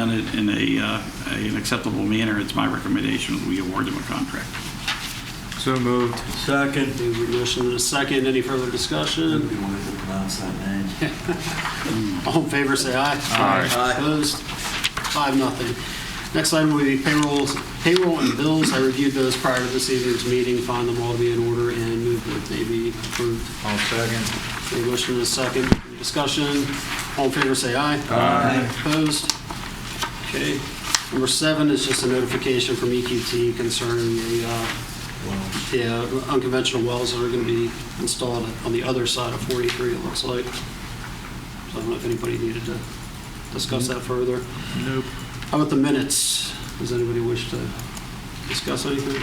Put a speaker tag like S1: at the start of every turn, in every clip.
S1: done it in a, uh, a- an acceptable manner, it's my recommendation that we award them a contract.
S2: So moved.
S3: Second. Motion and a second. Any further
S4: It'd
S3: discussion?
S4: be wonderful to pronounce that name.
S3: All in favor, say aye.
S2: Aye.
S4: Aye.
S3: Opposed? Five, nothing. Next item will be payrolls, payroll and bills. I reviewed those prior to this evening's meeting, found them all to be in order, and moved that they be approved.
S2: I'll second.
S3: Any motion and a second. Any Discussion. All in favor, say aye.
S2: Aye.
S3: Opposed? Okay. Number seven is just a notification from EQT concerning the uh, the uh, unconventional wells that are going to be installed on the other side of 43, it looks like. So I don't know if anybody needed to discuss that further.
S2: Nope.
S3: How about the minutes? Does anybody wish to discuss anything?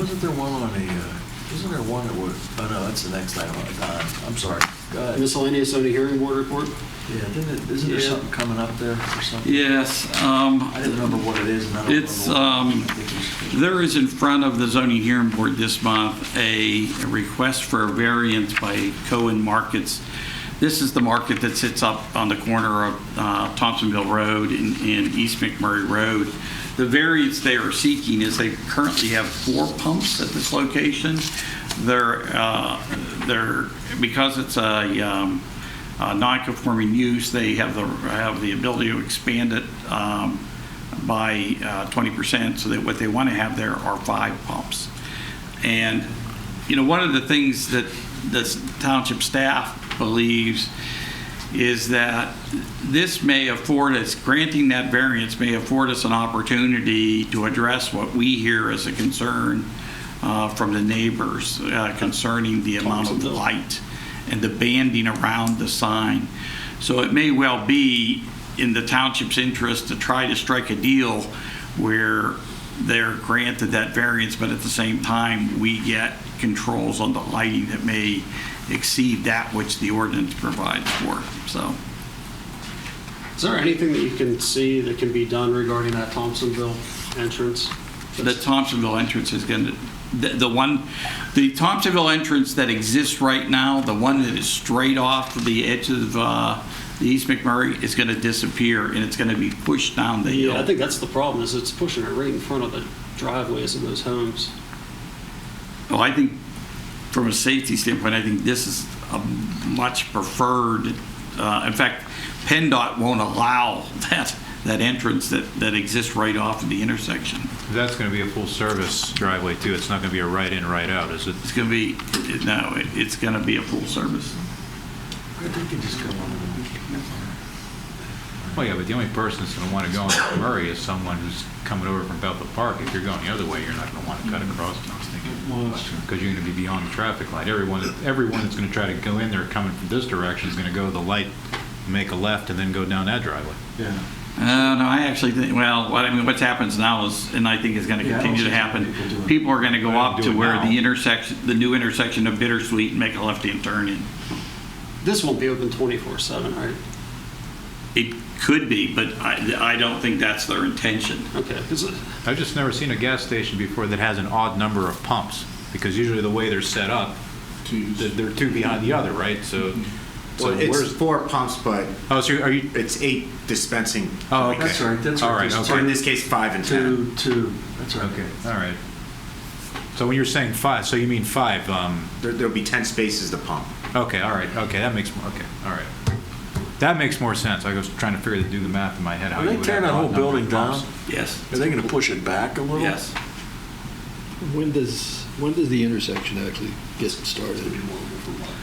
S4: Wasn't there one on a, uh, wasn't there one that would, oh no, that's the next item, Uh, I'm sorry. Go ahead.
S3: Miscellaneous zoning hearing board report?
S4: Yeah, didn't it, isn't there
S1: Yeah.
S4: something coming up there or something?
S1: Yes, um,
S4: I didn't remember what it is and I don't remember.
S1: It's,
S4: what-
S1: um,
S4: I think it was-
S1: There is in front of the zoning hearing board this month a a request for a variance by Cohen Markets. This is the market that sits up on the corner of uh, Thompsonville Road and and East McMurray Road. The variance they are seeking is they currently have four pumps at this location. They're, uh, they're, because it's a um, a non-conforming use, they have the, have the ability to expand it um, by uh, 20%, so that what they want to have there are five pumps. And, you know, one of the things that the township staff believes is that this may afford us, granting that variance may afford us an opportunity to address what we hear as a concern uh, from the neighbors uh, concerning the amount of light and the banding around the sign. So it may well be in the township's interest to try to strike a deal where they're granted that variance, but at the same time, we get controls on the lighting that may exceed that which the ordinance provides for. So
S3: Is there anything that you can see that can be done regarding that Thompsonville entrance?
S1: the Thompsonville entrance is going to, the the one, the Thompsonville entrance that exists right now, the one that is straight off the edge of uh, the East McMurray, is going to disappear, and it's going to be pushed down the uh, hill.
S3: Yeah, I think that's the problem, is it's pushing it right in front of the driveways of those homes.
S1: Well, I think from a safety standpoint, I think this is a much preferred, uh, in fact, PennDOT won't allow that, that entrance that, that exists right off of the intersection.
S2: That's going to be a full-service driveway, too. It's not going to be a right-in, right-out, is it?
S1: It's going to be, no, it- it's going to be a full service.
S4: I think it just go on.
S2: Well, yeah, but the only person that's going to want to go on Murray is someone who's coming over from Bethel Park. If you're going the other way, you're not going to want to cut across, I was
S3: Mm-hmm. Well, that's
S2: thinking. Because you're going to be beyond the traffic light. Everyone, everyone that's going to try to go in there coming from this direction is going to go to the light, make a left, and then go down that driveway.
S4: Yeah.
S1: Uh, no, I actually think, well, what, I mean, what happens now is, and I think is going to
S4: Yeah, I don't
S1: continue to
S4: see
S1: happen,
S4: people doing it.
S1: people are going to
S2: They
S1: go
S2: don't
S1: up
S2: do
S1: to
S2: it
S1: where
S2: now.
S1: the intersection, the new intersection of Bittersweet and make a left-hand turn in.
S3: This won't be open 24/7, right?
S1: It could be, but I, I don't think that's their intention.
S3: Okay, 'cause, uh,
S2: I've just never seen a gas station before that has an odd number of pumps, because usually the way they're set up, they're they're two behind the other, right? So,
S3: Mm-hmm.
S2: so
S5: Well, it's
S2: where's,
S5: four pumps, but
S2: oh, so are you,
S5: it's eight dispensing.
S2: oh, okay.
S4: That's right, that's
S2: All
S4: right,
S2: right,
S4: that's
S5: Or in
S2: okay.
S5: this case, five and ten.
S4: Two, two, that's right.
S2: Okay, all right. So when you're saying five, so you mean five, um,
S5: There, there'll be ten spaces to pump.
S2: okay, all right, okay, that makes, more. okay, all right. That makes more sense. I was trying to figure, to do the math in my head. how
S4: Are
S2: you
S4: they
S2: would
S4: tearing
S2: have
S4: that
S2: an
S4: whole
S2: odd number of
S4: building down?
S2: pumps.
S1: Yes,
S4: Are they going to push it back a little?
S1: yes.
S6: When does, when does the intersection actually get started?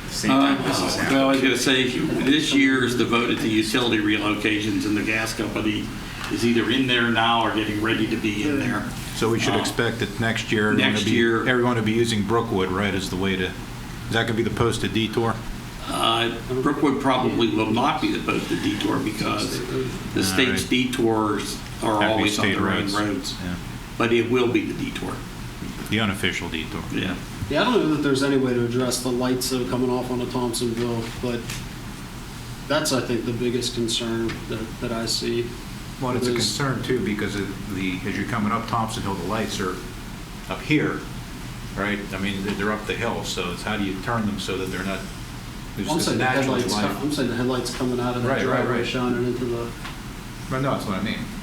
S5: Same time this
S1: Uh, Well,
S5: is
S1: I
S5: happening.
S1: was going to say, this year is devoted to utility relocations, and the gas company is either in there now or getting ready to be in there.
S2: So we
S4: Oh.
S2: should
S1: Uh,
S2: expect that next year, everyone
S1: next
S2: will be,
S1: year-
S2: everyone will be using Brookwood, right, as the way to, is that going to be the posted detour?
S1: Uh, Brookwood probably will not be the posted detour because the state's
S2: Alright.
S1: detours are
S2: That'd be
S1: always on
S2: state
S1: their own
S2: roads.
S1: roads.
S2: Yeah.
S1: But it will be the detour,
S2: The unofficial detour.
S1: yeah.
S3: yeah, I don't know that there's any way to address the lights that are coming off onto Thompsonville, but that's, I think, the biggest concern that, that I see.
S2: Well, it's a
S3: Those-
S2: concern too, because of the, as you're coming up Thompson Hill, the lights are up here, right? I mean, they're- they're up the hill, so it's how do you turn them so that they're not, there's
S3: I'm
S2: this
S3: saying the
S2: natural
S3: headlights,
S2: light.
S3: co- I'm saying the headlights coming out of the
S2: Right, right,
S3: driveway
S2: right.
S3: shining into the,
S2: Well, no, that's what I mean.